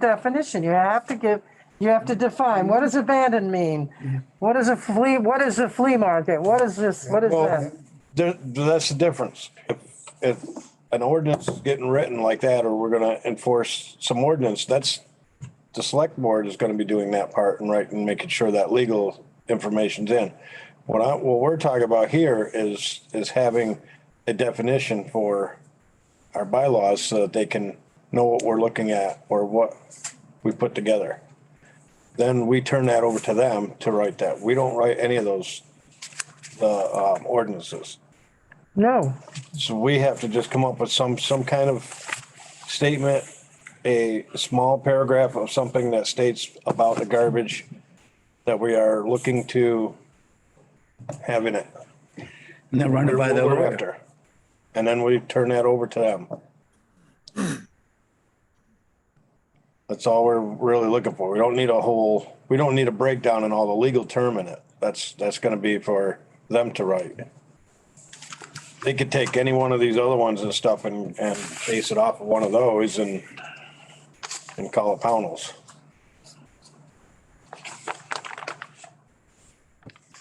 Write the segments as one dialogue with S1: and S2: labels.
S1: the definition. You have to give, you have to define, what does abandoned mean? What is a flea, what is a flea market? What is this, what is
S2: Well,
S1: that?
S2: there, that's the difference. If, if an ordinance is getting written like that, or we're gonna enforce some ordinance, that's, the select board is gonna be doing that part and right, and making sure that legal information's in. What I, what we're talking about here is, is having a definition for our bylaws so that they can know what we're looking at or what we put together. Then we turn that over to them to write that. We don't write any of those the um, ordinances.
S1: No,
S2: So we have to just come up with some, some kind of statement, a small paragraph of something that states about the garbage that we are looking to have in it.
S3: And they're running by the
S2: What we're
S3: order.
S2: after. And then we turn that over to them. That's all we're really looking for. We don't need a whole, we don't need a breakdown in all the legal term in it. That's, that's gonna be for them to write. They could take any one of these other ones and stuff and, and base it off of one of those and, and call it Pownell's.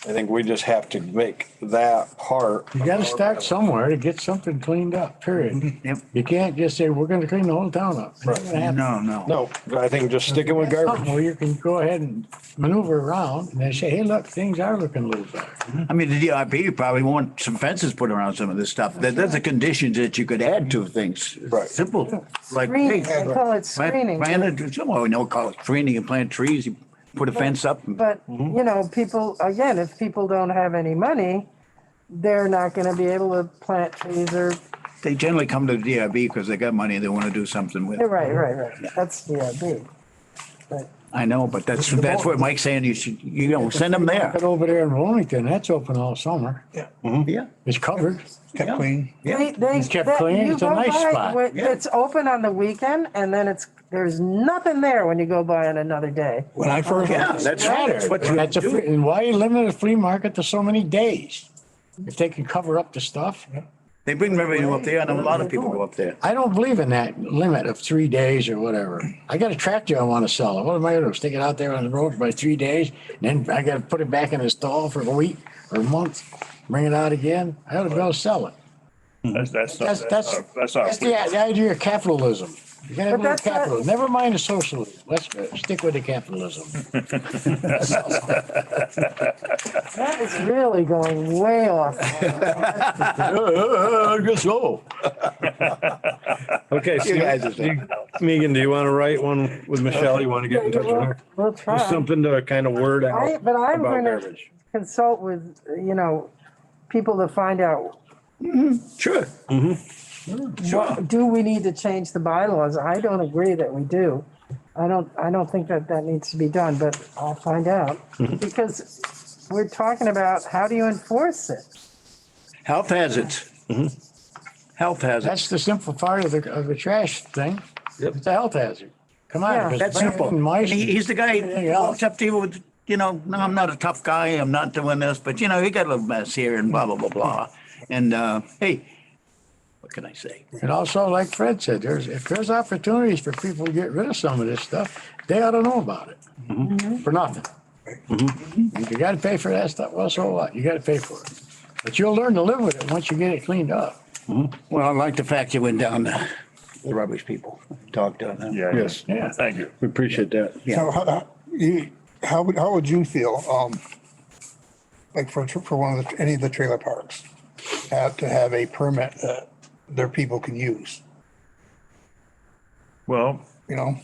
S2: I think we just have to make that part.
S4: You gotta start somewhere to get something cleaned up, period.
S3: Yep.
S4: You can't just say, we're gonna clean the whole town up. It's not gonna happen.
S3: No, no.
S2: No, I think just sticking with garbage.
S4: Well, you can go ahead and maneuver around and then say, hey, look, things are looking loose there.
S3: I mean, the DRB probably want some fences put around some of this stuff. There- There's the conditions that you could add to things.
S2: Right.
S3: Simple, like.
S1: screening,
S3: hey,
S1: I call it
S3: Plant,
S1: screening.
S3: plant, someone know, call it screening and plant trees, you put a fence up. and-
S1: But, you know, people, again, if people don't have any money, they're not gonna be able to plant trees or,
S3: They generally come to the DRB because they got money and they want to do something with.
S1: you're
S3: it.
S1: right, right, right. That's, yeah, big. But
S3: I know, but that's, that's what Mike's saying. You should, you know, send them there.
S4: But over there in Wilmington, that's open all summer.
S3: Yeah.
S4: It's covered.
S3: Yeah.
S5: Kept clean.
S3: Yeah.
S1: They, they.
S4: It's kept
S1: that-
S4: clean.
S1: you
S4: It's a
S1: go
S4: nice
S1: by
S4: spot.
S1: what-
S3: Yeah.
S1: It's open on the weekend and then it's, there's nothing there when you go by on another day.
S5: When I first,
S3: Yeah, that's right. What you
S4: That's a,
S3: do.
S4: free- and why you limit the flea market to so many days? If they can cover up the stuff.
S3: They bring revenue up there and a lot of people go up there.
S4: I don't believe in that limit of three days or whatever. I got a tractor I want to sell. What am I going to stick it out there on the road by three days? And then I got to put it back in the stall for a week or a month, bring it out again. I ought to go sell it.
S6: That's, that's, not- Uh,
S4: That's, that's,
S6: that's, not- that's
S4: that's
S6: not.
S4: the, the idea of capitalism. You gotta have
S1: But
S4: a little
S1: that's not-
S4: capitalism. Never mind the socialism. Let's uh, stick with the capitalism.
S1: That is really going way off.
S4: I guess so.
S2: Okay,
S3: You guys are-
S2: Steve- Megan, do you want to write one with Michelle? You want to get in touch with her?
S1: We'll
S2: Just
S1: try.
S2: something to kind of word
S1: I,
S2: out
S1: but I'm
S2: about
S1: gonna
S2: garbage.
S1: consult with, you know, people to find out,
S3: Sure. Mm-hmm.
S1: what, do we need to change the bylaws? I don't agree that we do. I don't, I don't think that that needs to be done, but I'll find out. Because we're talking about, how do you enforce it?
S3: Health hazards. Health hazards.
S4: That's the simple part of the, of the trash thing. It's a health hazard. Come
S1: Yeah.
S4: on. if it's
S3: That's
S4: bad
S3: simple.
S4: and
S3: He-
S4: Mice.
S3: He's the guy
S4: Anything
S3: who
S4: else?
S3: walks up to you with, you know, no, I'm not a tough guy. I'm not doing this, but you know, you got a little mess here and blah, blah, blah, blah. And, uh, hey, what can I say?
S4: And also, like Fred said, there's, if there's opportunities for people to get rid of some of this stuff, they ought to know about it for nothing. If you gotta pay for that stuff, well, so what? You gotta pay for it. But you'll learn to live with it once you get it cleaned up.
S3: Well, I like the fact you went down to the rubbish people, talked to them.
S6: Yeah.
S2: Yes.
S4: Yeah.
S6: Thank you.
S2: We appreciate that.
S3: Yeah.
S5: So how- how, you, how would, how would you feel, um, like for, for one of the, any of the trailer parks? Have to have a permit that their people can use,
S6: Well,
S5: you know?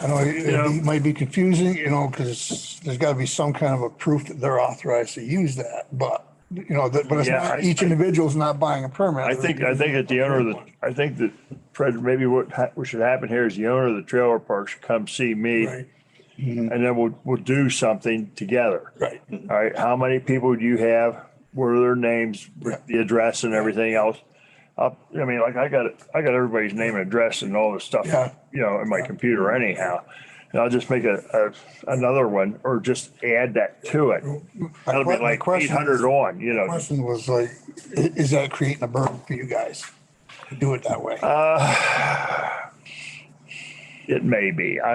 S5: I know it-
S6: Yeah.
S5: it might be confusing, you know, because there's gotta be some kind of a proof that they're authorized to use that, but, you know, that, but it's
S6: Yeah, I-
S5: not, each individual's not buying a permit.
S6: I think, I think at the owner of the, I think that Fred, maybe what, ha- what should happen here is the owner of the trailer park should come see me.
S5: Right. Mm-hmm.
S6: And then we'll, we'll do something together.
S5: Right.
S6: All right, how many people do you have? What are their names, with the address and everything else? Up, I mean, like I got, I got everybody's name and address and all this stuff,
S5: Yeah.
S6: you know, in my computer anyhow. And I'll just make a, a, another one or just add that to it.
S5: My
S6: That'll
S5: que-
S6: be
S5: my
S6: like eight
S5: question-
S6: hundred on, you know.
S5: Question was like, i- is that creating a burden for you guys? to Do it that way?
S6: It may be. I